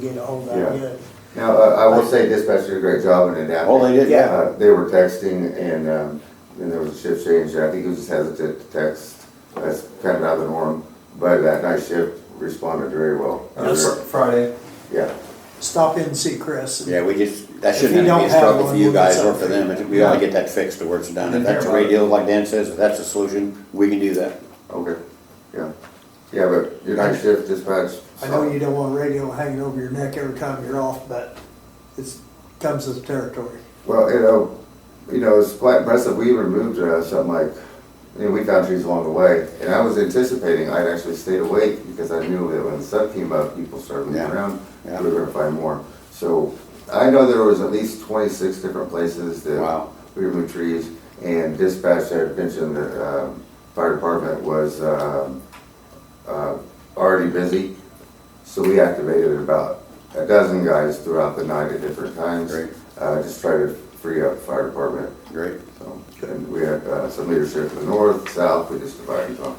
get ahold of Yeah. you. Now, uh, I will say dispatch did a great job in adapting. Oh, they did, yeah. Uh, They were texting and, um, and there was a shift change, I think he was just hesitant to text, that's kind of out of the norm, but that night shift responded very well. Yes. Friday. Yeah, Stop in and see Chris. Yeah, we just, that If shouldn't you have to don't be a struggle have for you one, we'll guys get or for them, but we ought to get that fixed to where it's done. If Didn't hear that's a about great it. deal, like Dan says, if that's the solution, we can do that. okay, yeah, yeah, but your night shift dispatch. I know you don't want radio hanging over your neck every time you're off, but it's, comes with territory. Well, you know, you know, it's quite impressive, we removed uh, something like, you know, we found trees along the way, and I was anticipating I'd actually stayed awake, because I knew that when the sun came up, people started moving Yeah. around, we Yeah. were gonna find more. So, I know there was at least twenty-six different places that Wow. we removed trees, and dispatch had mentioned that, um, fire department was, um, uh, already busy, so we activated about a dozen guys throughout the night at different times. Great. Uh, just try to free up fire department, Great. so, and we had, uh, some leadership in the north, south, we just divided them,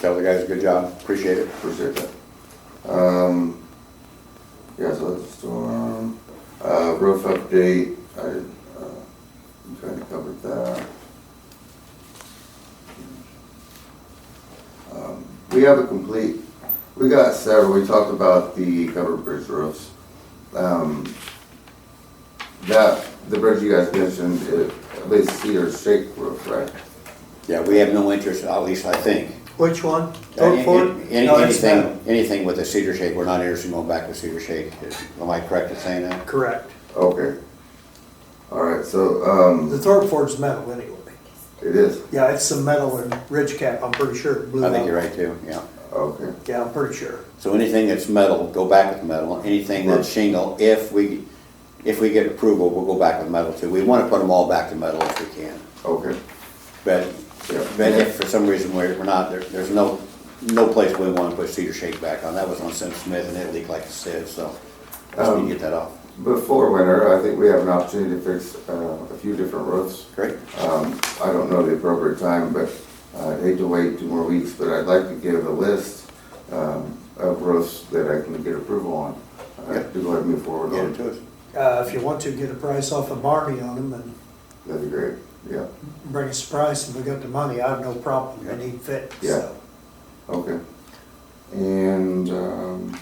Tell the guys, good job, appreciate it. appreciate that. Um, yeah, so that's the storm, uh, roof update, I, didn't, uh, I'm trying to cover that. Um, We have a complete, we got several, we talked about the covered bridge roofs. Um, That, the bridge you guys mentioned, it- at least cedar shake roof, right? Yeah, we have no interest, at least I think. Which one? Vote Any- for it? any- No, it's not. Anything, anything with a cedar shake, we're not interested in going back with cedar shake. Am I correct in saying that? Correct. Okay. All right, so, um, The Thorpe Ford's metal anyway. it is, Yeah, it's some metal and ridge cap, I'm pretty sure. it blew I think up. you're right too, yeah. okay. Yeah, I'm pretty sure. So anything that's metal, go back with metal. Anything that's shingle, if we, if we get approval, we'll go back with metal too. We want to put them all back to metal if we can. Okay, But, Yeah. but if for some reason we're, we're not, there, there's no, no place we want to put cedar shake back on. That was on Sim Smith and it leaked like it said, so just need to get that off. before winter, I think we have an opportunity to fix uh, a few different roofs. Great, Um, I don't know the appropriate time, but I'd hate to wait two more weeks, but I'd like to give a list um, of roofs that I can get approval on. uh, Yeah. To go ahead and move forward get it on, to us. Uh, if you want to, get a price off of Marmy on them and that'd be great, yeah, bring us a price, and we got the money, I have no problem, Yeah. we need fit, Yeah. so. okay. And, um,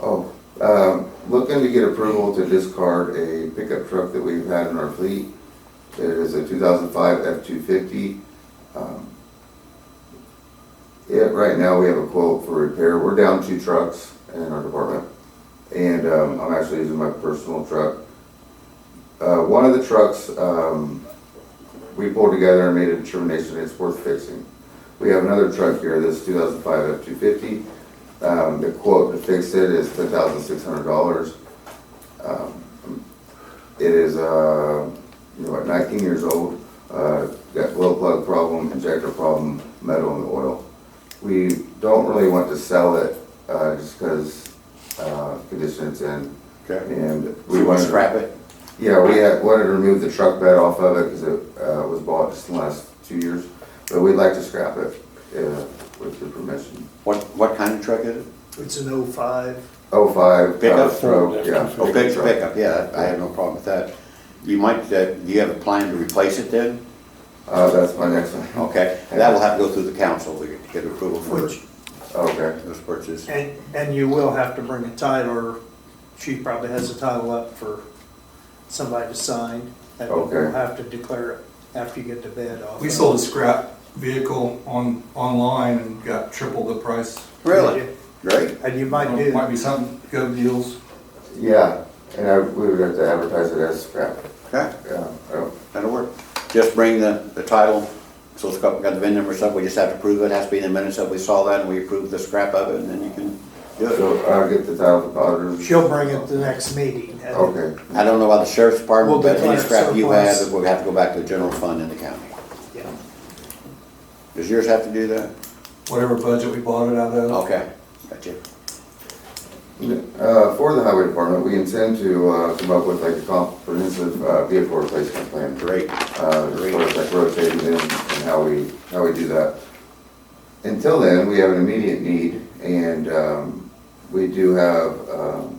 oh, um, looking to get approval to discard a pickup truck that we've had in our fleet. It is a two thousand five F two fifty. Yeah, right now we have a quote for repair. We're down two trucks in our department. And, um, I'm actually using my personal truck. Uh, one of the trucks, um, we pulled together and made a determination it's worth fixing. We have another truck here, this two thousand five F two fifty. Um, the quote to fix it is ten thousand six hundred dollars. Um, It is, uh, you know, what, nineteen years old, uh, got oil plug problem, injector problem, metal in the oil. We don't really want to sell it, uh, just because, uh, condition it's in, Okay. and we We want wanted to to scrap it? yeah, we had, wanted to remove the truck bed off of it because it uh, was bought just in the last two years, but we'd like to scrap it uh, with your permission. What, what kind of truck is it? It's an oh five, Oh five. Pickup? Yeah. Oh, big truck. pickup, yeah, I have no problem with that. You might, uh, do you have a plan to replace it then? Uh, That's my next one. Okay, that will have to go through the council to get- get approval for which, Okay, those purchases. and, and you will have to bring a title, or she probably has a title up for somebody to sign, and we'll Okay. have to declare it after you get the bid off. We of sold it. a scrap vehicle on, online and got triple the price. Really? Great, And you might It Might do, be something, good deals. yeah, and I- we would have to advertise it as scrap. okay. Yeah, oh, That'll work. Just bring the, the title, so it's got, got the VIN number and stuff, we just have to prove it, has to be in the minutes that we saw that, and we approve the scrap of it, and then you can do it. So I'll get the title from auditors. she'll bring it to the next meeting. and- Okay, I don't know about the sheriff's department, We'll but any declare scrap you surplus. have, we'll have to go back to the general fund in the county. Yeah. Does yours have to do that? Whatever budget we bought it out of. Okay, got you. Uh, for the highway department, we intend to uh, come up with like a comprehensive uh, vehicle replacement plan. Great. uh, as far as like rotating them and how we, how we do that. Until then, we have an immediate need, and um, we do have um,